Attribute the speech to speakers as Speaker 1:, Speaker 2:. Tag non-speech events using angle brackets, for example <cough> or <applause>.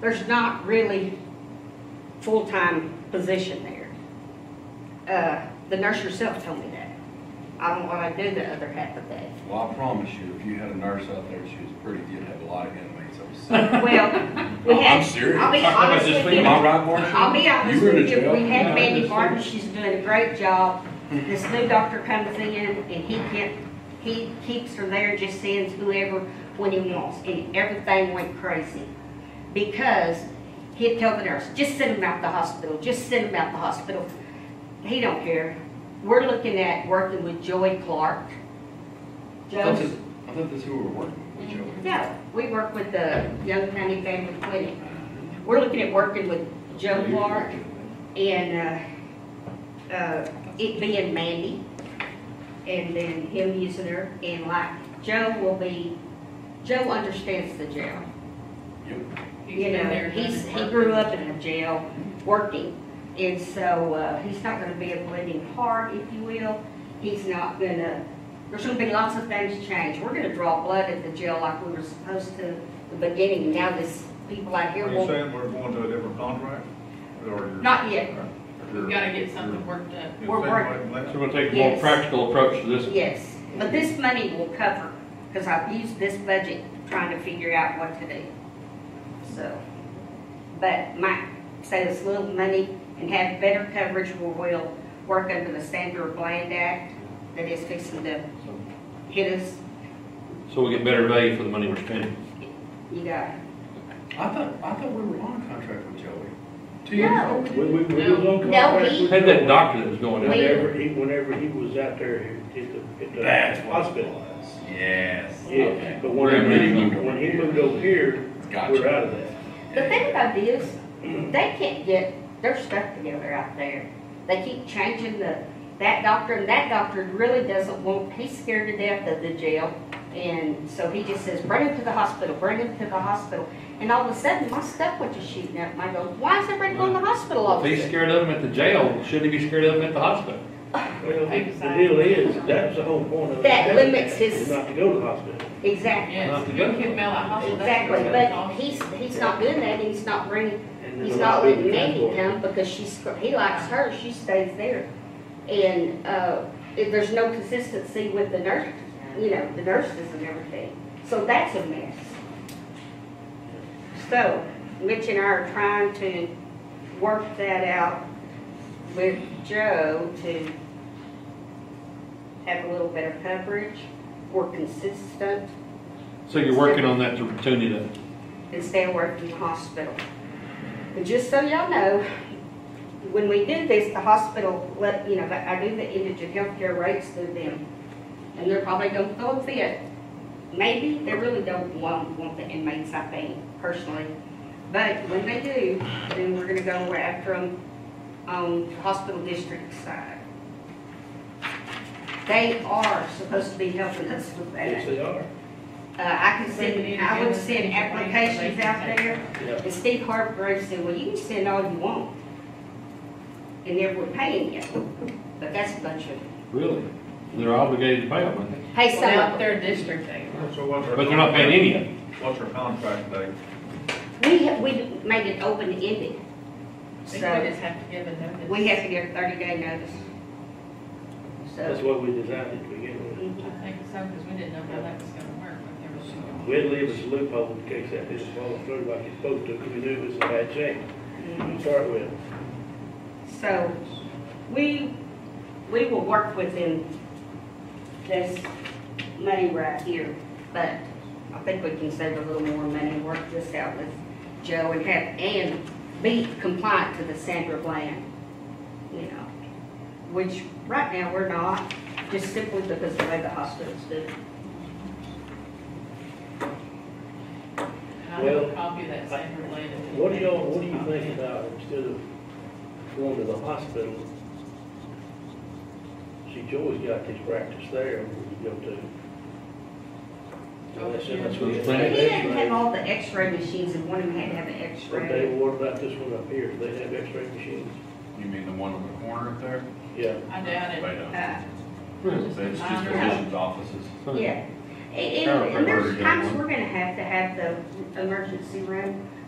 Speaker 1: there's not really full-time position there. Uh, the nurse herself told me that. I don't wanna do the other half of that.
Speaker 2: Well, I promise you, if you had a nurse out there, she was pretty, you'd have a lot of inmates. I'm serious.
Speaker 1: Well, we
Speaker 2: Oh, I'm
Speaker 1: had.
Speaker 2: serious.
Speaker 1: I'll be honest with you.
Speaker 2: Am I <laughs> right, Marcia?
Speaker 1: I'll be honest
Speaker 2: You were in
Speaker 1: with
Speaker 2: a
Speaker 1: you,
Speaker 2: jail.
Speaker 1: we had
Speaker 2: Yeah,
Speaker 1: Mandy
Speaker 2: that's
Speaker 1: Barton,
Speaker 2: true.
Speaker 1: she's doing a great job.
Speaker 2: Mm-hmm.
Speaker 1: This new doctor comes in and he can't, he keeps her there, just sends whoever when he wants, and everything went crazy. Because he'd tell the nurse, just send him out the hospital, just send him out the hospital. He don't care. We're looking at working with Joey Clark.
Speaker 2: I thought
Speaker 1: Joe,
Speaker 2: this- I thought this who we were working with, Joey.
Speaker 1: yeah, we work with the Young County Family Clinic. We're looking at working with Mm-hmm. Joe Clark and, uh, uh, it being Mandy, and then him using her, and like, Joe will be, Joe understands the jail.
Speaker 2: Yep.
Speaker 1: You know, he's, he grew up in a jail, working, and so, uh, he's not gonna be a bleeding heart, if you will. He's not gonna, there's gonna be lots of things change. We're gonna draw blood at the jail like we were supposed to in the beginning, now this, people out here
Speaker 3: Are you
Speaker 1: will,
Speaker 3: saying we're going to a different contract? Or you're-
Speaker 1: not yet,
Speaker 3: you're-
Speaker 4: We've gotta get something worked up.
Speaker 3: you're
Speaker 1: We're
Speaker 3: saying
Speaker 1: working.
Speaker 3: like
Speaker 5: So
Speaker 3: last-
Speaker 5: we're gonna take a more
Speaker 1: Yes.
Speaker 5: practical approach to this.
Speaker 1: Yes, but this money will cover, because I've used this budget trying to figure out what to do. So, but my, save us little money and have better coverage where we'll work under the Standard Bland Act that is fixing to hit us.
Speaker 5: So we get better value for the money we're spending.
Speaker 1: You got it.
Speaker 2: I thought, I thought we were on a contract with Joey. Two years
Speaker 1: No.
Speaker 2: ago.
Speaker 6: We, we, we was on
Speaker 1: No,
Speaker 6: contract
Speaker 1: he-
Speaker 6: with
Speaker 5: Had
Speaker 6: Joey.
Speaker 5: that doctor that was going out there.
Speaker 6: Whenever he, whenever he was out there at the, at the.
Speaker 2: That's what it
Speaker 6: Hospital.
Speaker 2: was. Yes.
Speaker 6: Yeah,
Speaker 2: Okay.
Speaker 6: but whenever
Speaker 5: When he
Speaker 6: he,
Speaker 5: moved
Speaker 2: over
Speaker 6: when he
Speaker 2: here.
Speaker 6: moved over here, we're
Speaker 2: Gotcha.
Speaker 6: out of that.
Speaker 1: The thing about it is, they can't get their stuff together out there. They keep changing the, that doctor, and that doctor really doesn't want, he's scared to death of the jail. And so he just says, bring him to the hospital, bring him to the hospital. And all of a sudden, my stuff went to shooting up, and I go, why is everybody going to the hospital all
Speaker 5: If
Speaker 1: of a
Speaker 5: he's
Speaker 1: sudden?
Speaker 5: scared of them at the jail, shouldn't he be scared of them at the hospital?
Speaker 6: Well, the the deal is, that's the whole point of.
Speaker 1: That
Speaker 6: it,
Speaker 1: limits his-
Speaker 6: is Not to go to the hospital.
Speaker 1: Exactly,
Speaker 4: Yes,
Speaker 5: Not
Speaker 4: you
Speaker 5: together.
Speaker 4: can mail out hospital. that's
Speaker 1: exactly,
Speaker 4: what it's
Speaker 1: but
Speaker 4: called.
Speaker 1: he's, he's not doing that, and he's not bringing
Speaker 6: And then
Speaker 1: He's
Speaker 6: the
Speaker 1: not letting
Speaker 6: liability
Speaker 1: Mandy come because she's, he likes her, she stays there. And, uh, if there's no consistency with the nurse, you know, the nurses and everything. So that's a mess. So Mitch and I are trying to work that out with Joe to have a little better coverage, more consistent,
Speaker 5: So you're working on that to continue to,
Speaker 1: and stay away from the hospital. And just so y'all know, when we do this, the hospital, let, you know, I do the indigent healthcare rates through them, and they're probably gonna go with it. Maybe, they really don't want, want the inmates, I think, personally, but when they do, then we're gonna go after them on the hospital district side. They are supposed to be helping us with that.
Speaker 6: Yes, they are.
Speaker 1: Uh, I can send, I would send applications out there,
Speaker 6: Yeah.
Speaker 1: and Steve Hargrave said, well, you can send all you want. And they were paying you, but that's a bunch of,
Speaker 5: really, they're obligated to pay them, aren't they?
Speaker 1: hey,
Speaker 4: Well,
Speaker 1: some
Speaker 4: not
Speaker 1: of them.
Speaker 4: their district, they were.
Speaker 3: So what's our?
Speaker 5: But they're not paying any of it.
Speaker 3: What's our contract date?
Speaker 1: We, ha- we made it open ended.
Speaker 4: They
Speaker 1: So,
Speaker 4: just have to give a notice.
Speaker 1: we have to give thirty day notice.
Speaker 6: That's
Speaker 1: So,
Speaker 6: what we designed it to begin with.
Speaker 1: mhm.
Speaker 4: I think so, because we didn't know how that was gonna work, but there was.
Speaker 6: We had leave us a loophole in case that didn't follow through like it's supposed to, because we knew it was a bad change to start with.
Speaker 1: so, we, we will work within this money right here, but I think we can save a little more money and work this out with Joe and have, and be compliant to the Sandra Bland, you know, which right now we're not, just simply because of the way the hospitals do. it.
Speaker 4: And I have a copy of that same related.
Speaker 6: What do y'all, what do you think about instead of going to the hospital? See, Joey's got his practice there, we can go to.
Speaker 4: Oh,
Speaker 6: Unless
Speaker 4: yeah.
Speaker 6: that's
Speaker 5: He
Speaker 1: He didn't have
Speaker 6: what-
Speaker 1: all the x-ray machines and one of them had to have an
Speaker 6: Okay,
Speaker 1: x-ray.
Speaker 6: well, what about this one up here? Do they have x-ray machines?
Speaker 2: You mean the one on the corner up there?
Speaker 6: Yeah.
Speaker 4: I doubt
Speaker 2: They
Speaker 4: it.
Speaker 2: don't.
Speaker 1: Uh,
Speaker 5: Really?
Speaker 2: It's just physicians' offices.
Speaker 1: Yeah, and,
Speaker 5: Chiropractor
Speaker 1: and there's
Speaker 2: again.
Speaker 1: times we're gonna have to have the emergency room